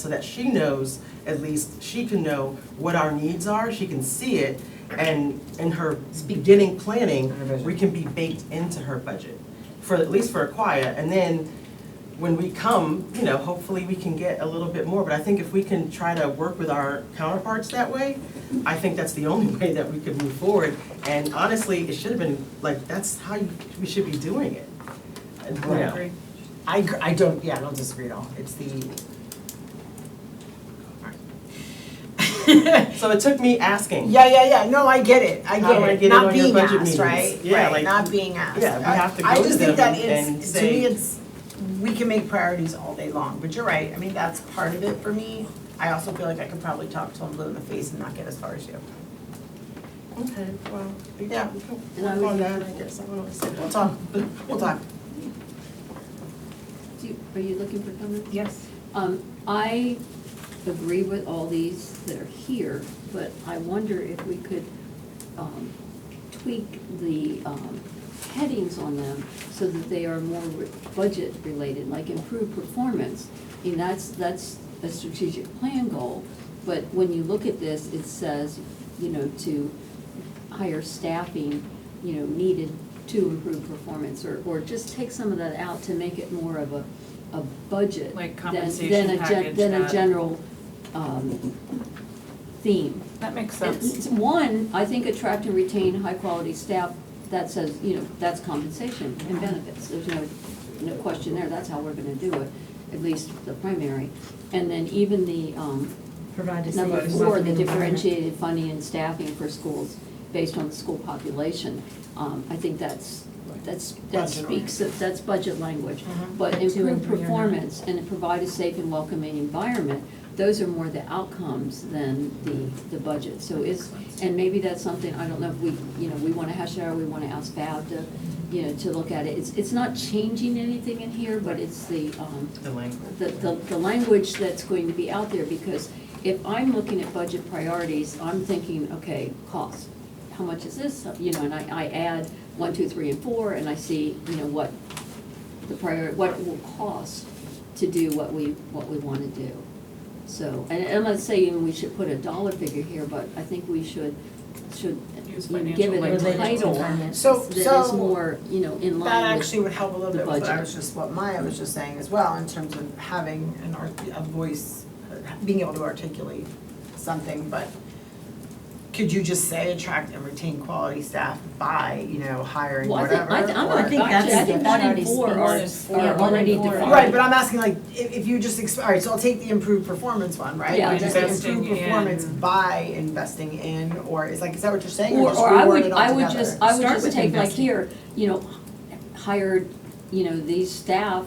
so that she knows, at least, she can know what our needs are, she can see it, and in her beginning planning, Her budget. we can be baked into her budget, for, at least for Aquia, and then when we come, you know, hopefully we can get a little bit more, but I think if we can try to work with our counterparts that way, I think that's the only way that we could move forward, and honestly, it should have been, like, that's how you, we should be doing it. And, you Right. know, I, gr- I don't, yeah, I don't disagree at all, it's the. So it took me asking. Yeah, yeah, yeah, no, I get it, I How do I get get it it, not on your being budget meetings? asked, right? Yeah, Right, like, Not being asked. yeah, we I- have to I go just to think them that and it's, to say- me, it's, we can make priorities all day long, but you're right, I mean, that's part of it for me. I also feel like I could probably talk till I'm blue in the face and not get as far as you. Okay, well, we Yeah. can, we can work on that, I guess, I don't know. what to say. We'll talk, we'll talk. Do you- Are you looking for comments? Yes. Um, I agree with all these that are here, but I wonder if we could, um, tweak the, um, headings on them so that they are more re- budget related, like improve performance. I mean, that's, that's a strategic plan goal, but when you look at this, it says, you know, to higher staffing, you know, needed to improve performance, or, or just take some of that out to make it more of a, a budget. Like than- than compensation a gen- package Than a that- general, um, theme. That makes It's- sense. it's One, I think attract and retain high-quality staff, that says, you know, that's compensation and benefits, there's no, no question there, that's how we're gonna do it, at least the primary. And then even the, um, Provide a safe. Number and four, the welcoming environment. differentiated funding and staffing for schools based on the school population. Um, I think that's, that's, that Budget speaks, of- that's budget language. Mhm. But But two and improved three are not. performance and provide a safe and welcoming environment, those are more the outcomes than the, the budget. So it's, and maybe that's something, I don't know if we, you know, we wanna hash it out, we wanna ask Fab to, you know, to look at it. It's, it's not changing anything in here, but it's the, um, The language. the, the, the language that's going to be out there, because if I'm looking at budget priorities, I'm thinking, okay, cost. How much is this, you know, and I, I add one, two, three, and four, and I see, you know, what the prior, what it will cost to do what we, what we wanna do. So, and I'm not saying we should put a dollar figure here, but I think we should, should, Use you know, give financial it a language. Related to title finance. So, that is so, more, you know, in that line with, actually would help a little the bit with what I budget. was just, what Maya was just saying as well, in terms of having an art, a voice, uh, being able to articulate something, but could you just say attract and retain quality staff by, you know, hiring well, I whatever? think, I, I'm or- not, I think actually, I that's- think that one already and four are, speaks. are Yeah, one already and four are- defined. Right, but I'm asking like, if, if you just, ex- all right, so I'll take the improved performance one, right? Yeah. You Just the improved Investing in- performance by investing in, or is like, is that what you're saying, or Or, just or I reword would, it I all would together? just, I would Start just with take like investing. here, you know, hired, you know, these staff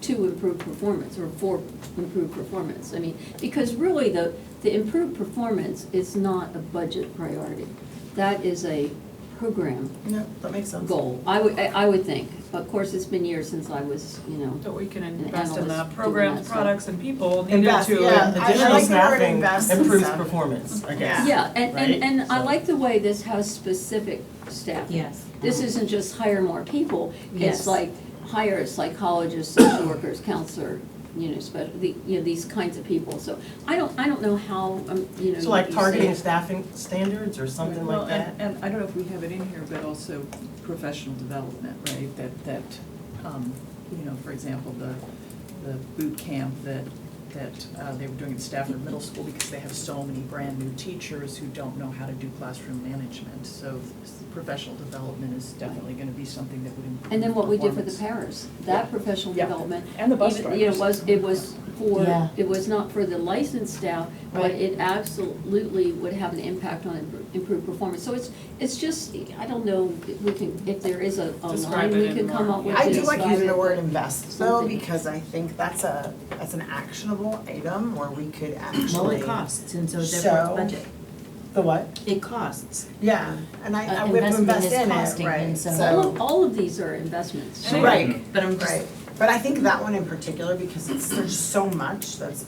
to improve performance or for improved performance. I mean, because really the, the improved performance is not a budget priority. That is a program No, that makes sense. goal, I would, I I would think. Of course, it's been years since I was, you know, That we can invest in the analyst doing that programs, stuff. products, and people needed Invest, to. yeah. I- I Additional like the word staffing invest and improves stuff. performance, I guess. Yeah, and, Right? and, and I So- like the way this has specific staff. Yes. This isn't just hire more people, it's Yes. like hire psychologists, social workers, counselor, you know, special, the, you know, these kinds of people, so I don't, I don't know how, um, you know. So like you say- targeting staffing standards or something Well, like that? and- And I don't know if we have it in here, but also professional development, right? That, that, um, you know, for example, the, the boot camp that, that uh, they were doing at Stafford Middle School because they have so many brand-new teachers who don't know how to do classroom management. So s- professional development is definitely gonna be something that would improve And then what we did for the performance. paras, that professional Yeah. development. And the bus even- You know, drivers. was, it was Yeah. for, it was not for the licensed staff, but Right. it absolutely would have an impact on impro- improved performance. So it's, it's just, I don't know, if we can, if there is a, a Describe line it we in can come more, up yeah. with. I to do like describe using the it. word invest though, Something. because I think that's a, that's an actionable item where we could actually. Well, it costs, and so So- therefore it's budget. The what? It costs. Yeah, and I, I Uh, we have to investment invest is in costing, it, right, and so. so- All of, all of these are investments. Sure. Right, But I'm just, right, but I think that one in particular, because it's, there's so much that's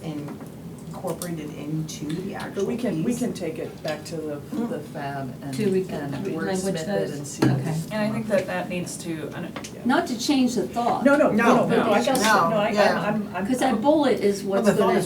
incorporated into the But actual we can, we piece. can take it back to the, the fab and, Do we get- and we Hmm. language wordsmith it those? and see. what- Okay. And I think that that needs to, I don't- Not to change the thought. No, no, no, No, no, no, I got, no, no, I, I'm, yeah. I'm, I'm. Because that bullet is what's the thought gonna is